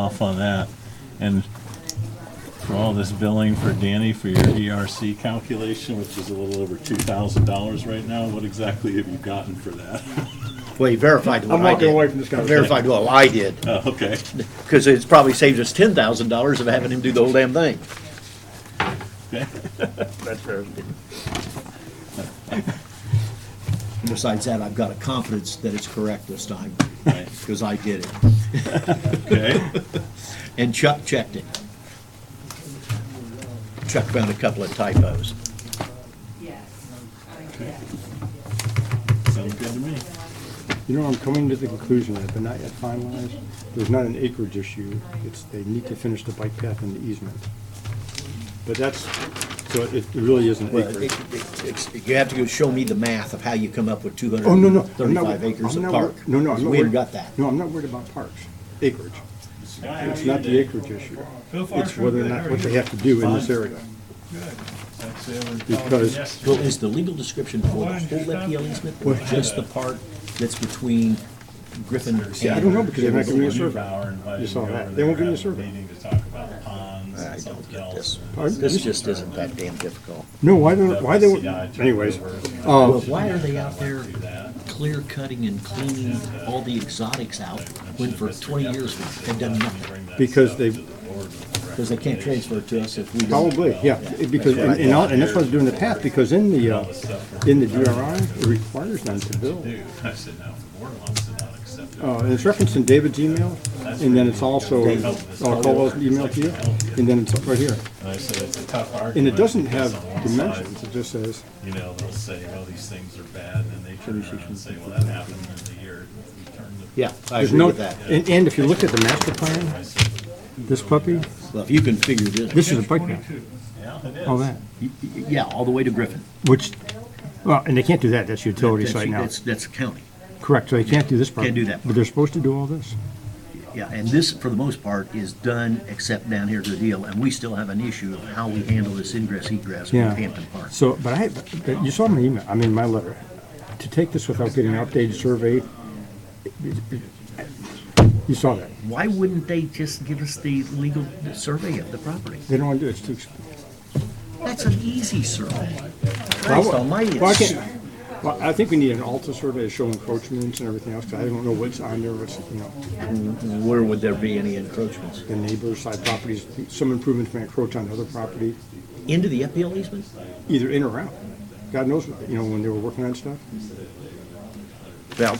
off on that. And for all this billing for Danny for your ERC calculation, which is a little over two thousand dollars right now, what exactly have you gotten for that? Well, you verified what I'm I did. walking away from this conversation. Verified what I did, Oh, Okay, because it's probably saved us ten thousand dollars of having him do the whole damn thing. okay. That's fair. Besides that, I've got a confidence that it's correct this time, Right, because I did it. Okay, And Chuck checked it. Chuck found a couple of typos. sounds good to me. You know, I'm coming to the conclusion that they're not yet finalized. There's not an acreage issue. It's, they need to finish the bike path and the easement. But that's, so it it really isn't Well, it- acreage. it- it's- You have to go show me the math of how you come up with two hundred Oh, no, and no. I'm not- thirty-five acres I'm of not park. wor- No, no, I'm not We worried. haven't got that. No, I'm not worried about parks, acreage. It's not the acreage issue. It's whether or not, what they have to do in this area. Because- Well, is the legal description for the whole FPL easement or just the part that's between Griffin and? I don't know, because they're not giving me a survey. Neubauer invited You saw me over that. They won't there give after you a the survey. Meeting to talk about ponds I and don't something get else. this. Pardon? This just isn't that damn difficult. No, why don't, why they, WCI took anyways, over and Well, um, why are they out there Do that. clear cutting and cleaning all the exotics out when for twenty years they've done nothing? Bring that because stuff they, to the board with Because they can't transfer it to us if we don't. Probably, yeah, because, and, and all- and that's why I was doing the path, because in the, uh, in the DRI, it requires them to build. Dude, I said, no, the board wants to not accept it. Uh, and it's referenced in David's email, and then it's also, I'll call those email to you, and then it's right here. And I said, it's a tough argument. And it doesn't because have on one dimensions, side, it just says, You know, they'll say, well, these things are bad, and then they turn around and say, well, that happened in the year we turned it. Yeah, I there's agree no, with that. and, and if you look at the master plan, I said, this puppy, Well, if you can figure this, this is a bike path, yeah, it is. all that, y- y- yeah, all the way to Griffin. which, well, and they can't do that, that's utility That's- site now. That's, that's county, Correct, so they can't do this part. Can't do that. But they're supposed to do all this. yeah, and this, for the most part, is done except down here to the deal, and we still have an issue of how we handle this ingress egress in Yeah. Hampton Park. So, but I, but you saw my email, I mean, my letter. To take this without getting an updated survey, it- it- it- you saw that. Why wouldn't they just give us the legal survey of the property? They don't want to do it, it's too expensive. That's an easy survey. Well, Christ almighty, well, I it's- can't- Well, I think we need an Alta survey to show encroachments and everything else, because I don't know what's on there, what's, you know, where would there be any encroachments? the neighbor side properties, some improvements may encroach on other property, Into the FPL easement? either in or out. God knows, what you know, when they were working on stuff. Well,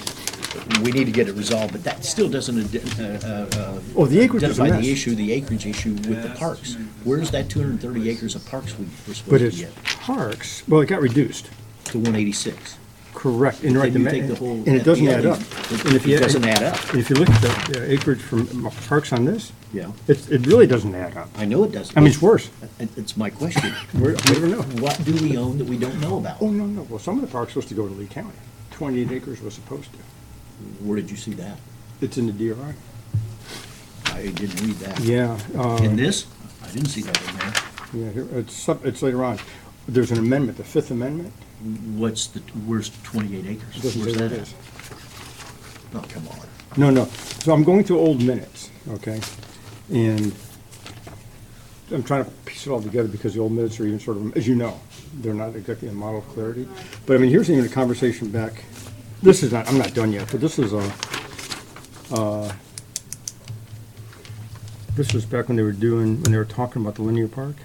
we need to get it resolved, but that still doesn't ident- uh, uh, uh, Oh, the acreage is a identify the mess. issue, the acreage issue with the parks. Where's that 230 acres of parks we were But supposed to it's get parks, well, it got reduced. to 186? Correct, and Then right, the you ma- take the whole and it doesn't FPL add up. easement. And if It you- doesn't add up. If you look at the the acreage from Parks on this, Yeah. it, it really doesn't add up. I know it doesn't. I mean, it's worse. It- It's my question. We're, we don't know. What do we own that we don't know about? Oh, no, no, well, some of the park's supposed to go to Lee County. Twenty-eight acres was supposed to. Where did you see that? It's in the DRI. I didn't read that. Yeah, uh, In this? I didn't see that in there. yeah, here- it's, sub- it's later on. There's an amendment, the Fifth Amendment. What's the, where's 28 It acres? doesn't Where's say what that it at? is. Oh, come on. No, no. So I'm going through old minutes, okay? And I'm trying to piece it all together because the old minutes are even sort of, as you know, they're not exactly a model of clarity. But I mean, here's even a conversation back, this is not, I'm not done yet, but this is a, uh, this was back when they were doing, when they were talking about the linear park.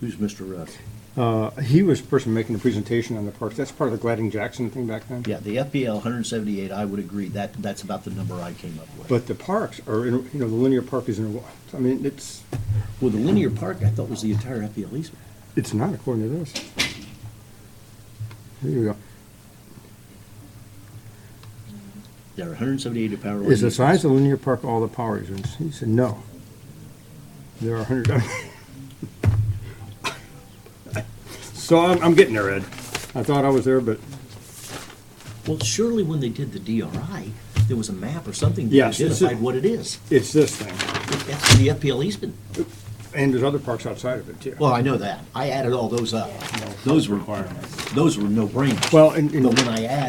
Who's Mr. Rudd? Uh, He was the person making the presentation on the parks. That's part of the Gladding-Jackson thing back then. Yeah, the FPL 178, I would agree, that, that's about the number I came up with. But the parks are, in you know, the linear park is in, a- I mean, it's, Well, the linear park, I thought was the entire FPL easement. It's not according to this. Here you go. There are 178 of power line Is the easements. size of linear park all the power easements? He said, no. There are a hundred. So I'm, I'm getting there, Ed. I thought I was there, but Well, surely when they did the DRI, there was a map or something that Yes, it's- identified what it is. it's this thing. That's the FPL easement. And there's other parks outside of it too. Well, I know that. I added all those up. Those were, those were no brainers. Well, and, But and when I add